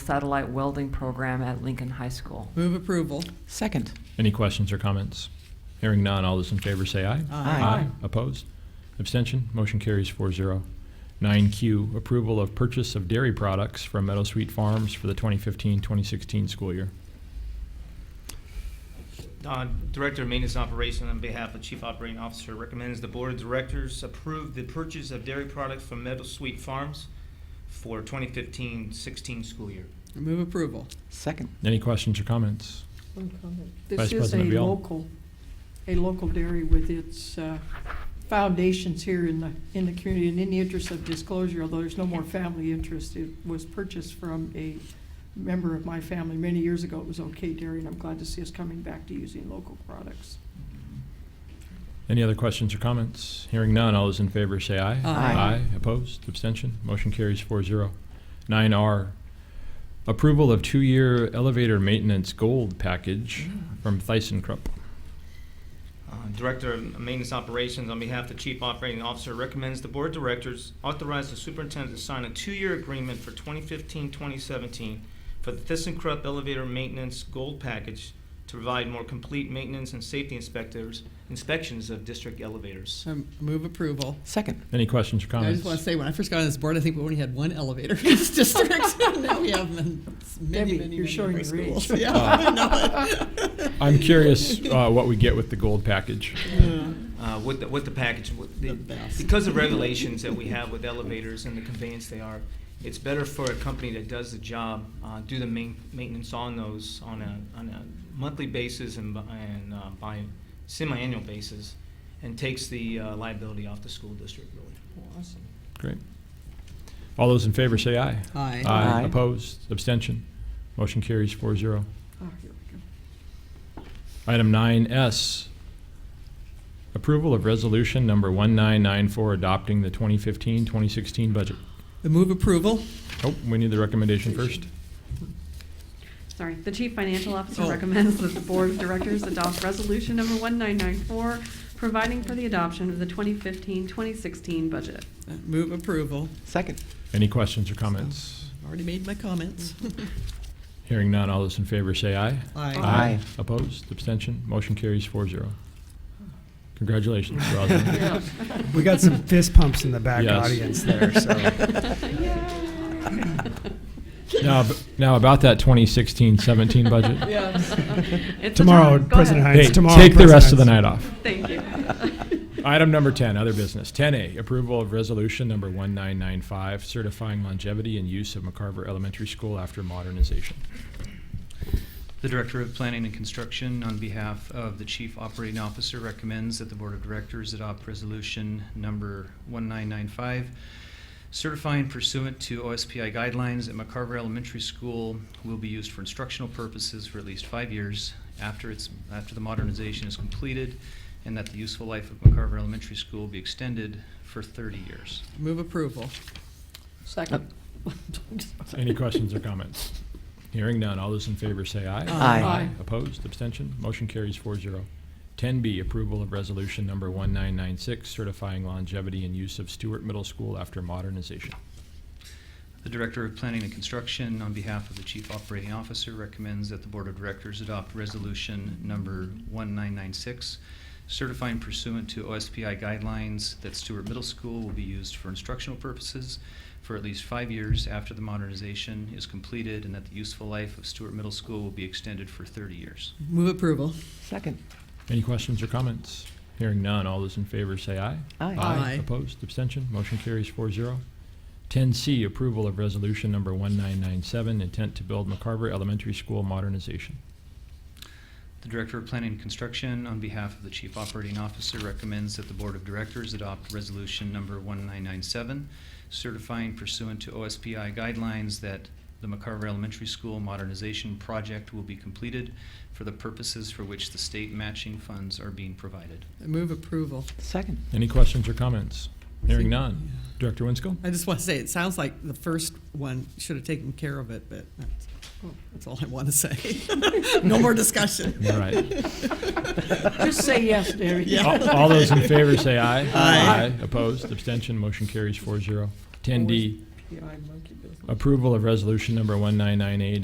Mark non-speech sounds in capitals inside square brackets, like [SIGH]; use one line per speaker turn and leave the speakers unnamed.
satellite welding program at Lincoln High School.
Move approval.
Second.
Any questions or comments? Hearing none, all those in favor say aye. Opposed? Abstention? Motion carries 4-0. Nine Q, approval of purchase of dairy products from Meadow Sweet Farms for the 2015-2016 school year.
Uh, Director of Maintenance and Operation, on behalf of Chief Operating Officer, recommends the Board of Directors approve the purchase of dairy products from Meadow Sweet Farms for 2015-16 school year.
Move approval.
Second.
Any questions or comments?
One comment.
Vice
This is a
President Viall.
local, a local dairy with its uh, foundations here in the, in the community. And in the interest of disclosure, although there's no more family interest, it was purchased from a member of my family many years ago. It was OK Dairy, and I'm glad to see us coming back to using local products.
Any other questions or comments? Hearing none, all those in favor say aye.
Aye.
Opposed? Abstention? Motion carries 4-0. Nine R, approval of two-year elevator maintenance gold package from ThyssenKrupp.
Uh, Director of Maintenance Operations, on behalf of Chief Operating Officer, recommends the Board of Directors authorize the superintendent to sign a two-year agreement for 2015-2017 for the ThyssenKrupp Elevator Maintenance Gold Package to provide more complete maintenance and safety inspectors, inspections of district elevators.
So move approval.
Second.
Any questions or
I
comments?
just want to say, when I first got on this board, I think we only had one elevator in this [LAUGHS] district. Now we have them in many,
Debbie,
many,
you're
many
showing
different
your age.
schools. [LAUGHS] Yeah,
Uh.
I know it.
I'm curious uh, what we get with the gold package.
uh, with the, with the package. With the,
The best.
Because of regulations that we have with elevators and the conveyance they are, it's better for a company that does the job, uh, do the main, maintenance on those on a, on a monthly basis and, bi- and uh, by semi-annual basis, and takes the uh, liability off the school district, really.
Awesome.
Great. All those in favor say aye.
Aye.
Aye.
Opposed? Abstention? Motion carries 4-0.
Ah, here we go.
Item 9S, approval of resolution number 1994 adopting the 2015-2016 budget.
The move approval.
Oh, we need the recommendation first.
Sorry, the Chief Financial Officer
Oh.
recommends that the Board of Directors adopt Resolution Number 1994, providing for the adoption of the 2015-2016 budget.
Move approval.
Second.
Any questions or comments?
Already made my comments. [LAUGHS]
Hearing none, all those in favor say aye.
Aye.
Aye.
Opposed? Abstention? Motion carries 4-0. Congratulations, Rosalind.
[LAUGHS]
We got some fist pumps in the back
Yes.
audience
[LAUGHS]
there, so.
Now, ab- now about that 2016-17
[LAUGHS]
budget.
Yes.
It's the
Tomorrow,
time. Go
President
ahead.
Hey,
Hines, tomorrow.
take the rest of the
President's-
night off.
Thank you.
Item number 10, other business. 10A, approval of resolution number 1995, certifying longevity and use of McCarver Elementary School after modernization.
The Director of Planning and Construction, on behalf of the Chief Operating Officer, recommends that the Board of Directors adopt Resolution Number 1995, certifying pursuant to OSPI guidelines that McCarver Elementary School will be used for instructional purposes for at least five years after its, after the modernization is completed, and that the useful life of McCarver Elementary School be extended for 30 years.
Move approval.
Second.
Any questions or comments? Hearing none, all those in favor say aye.
Aye.
Aye.
Opposed, abstention, motion carries 4-0. 10B, approval of resolution number 1996, certifying longevity and use of Stewart Middle School after modernization.
The Director of Planning and Construction, on behalf of the Chief Operating Officer, recommends that the Board of Directors adopt Resolution Number 1996, certifying pursuant to OSPI guidelines that Stewart Middle School will be used for instructional purposes for at least five years after the modernization is completed, and that the useful life of Stewart Middle School will be extended for 30 years.
Move approval.
Second.
Any questions or comments? Hearing none, all those in favor say aye.
Aye.
Aye.
Opposed, abstention, motion carries 4-0. Ten C, approval of resolution number one nine nine seven, intent to build McCarver Elementary School modernization.
The Director of Planning and Construction, on behalf of the Chief Operating Officer, recommends that the Board of Directors adopt Resolution Number 1997, certifying pursuant to OSPI guidelines that the McCarver Elementary School modernization project will be completed for the purposes for which the state matching funds are being provided.
Move approval.
Second.
Any questions or comments? Hearing none. Director Winskill?
I just want to say, it sounds like the first one should have taken care of it, but that's, that's all I want to say. [LAUGHS] No more discussion.
All right.
[LAUGHS] Just say yes, Debbie.
All all
[LAUGHS]
those in favor say aye.
Aye.
Opposed, abstention, motion carries 4-0. Ten D,
the eye monkey business.
Approval of resolution number 1998